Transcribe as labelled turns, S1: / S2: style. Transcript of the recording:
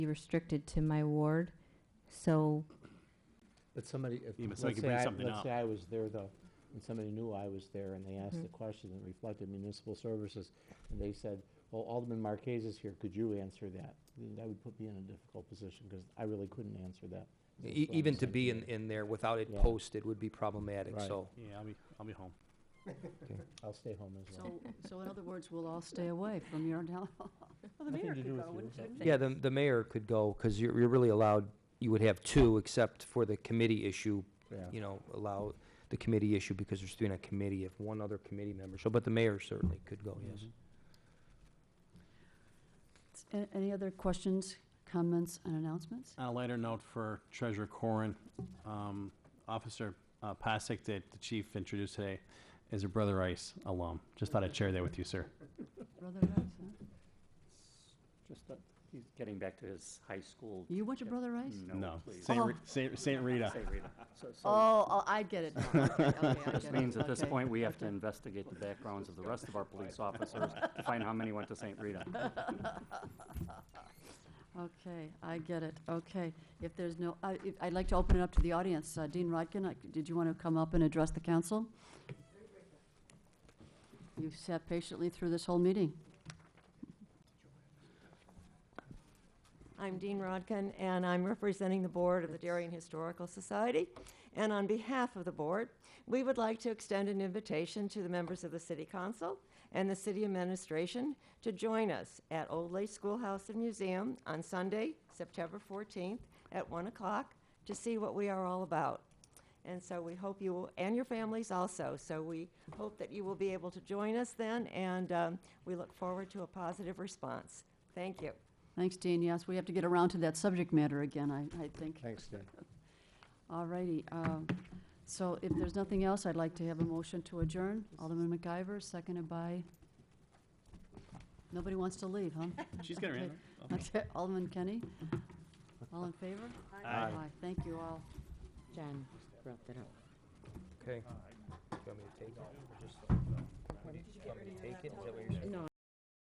S1: be restricted to my ward, so,
S2: But somebody, if,
S3: Yeah, but
S2: let's
S3: somebody could
S2: say,
S3: bring
S2: I-
S3: something
S2: let's
S3: up.
S2: say I was there though, and somebody knew I was there, and they asked
S1: Mhm.
S2: the question that reflected municipal services, and they said, well, Alderman Marquez is here, could you answer that? Then That would put me in a difficult position, because I really couldn't answer that. That's
S4: E-
S2: what I'm
S4: Even to
S2: saying
S4: be
S2: you.
S4: in, in there without it
S2: Yeah.
S4: posted would be problematic,
S2: Right.
S4: so.
S3: Yeah, I'll be, I'll be home.
S2: I'll stay home as well.
S5: So, so in other words, we'll all stay away from your town hall. Well, the
S2: Nothing
S5: mayor
S2: to do
S5: could
S2: with
S5: go,
S2: you,
S5: wouldn't-
S2: but-
S5: wouldn't they?
S4: Yeah, the, the mayor could go, because you're, you're really allowed, you would have two, except for the committee issue,
S2: Yeah.
S4: you know, allow the committee issue, because there's three on a committee, if one other committee member, so, but the mayor certainly could
S3: Oh,
S4: go, yes.
S5: A- Any other questions, comments, and announcements?
S3: On a lighter note for Treasurer Corrin, um, Officer uh, Pasek that the chief introduced today is a Brother Ice alum. Just thought I'd share that with you, sir.
S5: Brother Rice, huh?
S6: Just that he's getting back to his high school.
S5: You went to Brother Rice?
S3: No,
S6: No, please.
S3: Saint
S5: Oh.
S3: Ri- Saint Saint Rita.
S6: Say Rita. So, so
S5: Oh, oh, I get it now. Okay, okay, I get
S6: this
S5: it.
S6: means at this
S5: Okay.
S6: point, we have to
S5: okay.
S6: investigate the backgrounds of the rest of our police officers to find how many went to Saint Rita.
S5: Okay, I get it, okay. If there's no, I- if- I'd like to open it up to the audience. Uh, Dean Rodkin, I- did you want to come up and address the council? You've sat patiently through this whole meeting.
S7: I'm Dean Rodkin, and I'm representing the board of the Darien Historical Society. And on behalf of the board, we would like to extend an invitation to the members of the city council and the city administration to join us at Old Lake Schoolhouse and Museum on Sunday, September 14th at 1 o'clock to see what we are all about. And so we hope you, will and your families also, so we hope that you will be able to join us then, and um, we look forward to a positive response. Thank you.
S5: Thanks, Dean. Yes, we have to get around to that subject matter again, I, I think.
S2: Thanks, Dan.
S5: All righty. um, So if there's nothing else, I'd like to have a motion to adjourn. Alderman MacIver, seconded by, nobody wants to leave, huh?
S3: She's gonna
S5: Okay.
S3: run.
S5: Okay, Alderman Kenny? All in favor?
S3: Aye.
S5: Thank you all.
S8: John brought that up.
S2: Mm-hmm.
S4: Okay. Do you want me to take it? Just- Want me to take it? Is that what you're saying?
S8: No,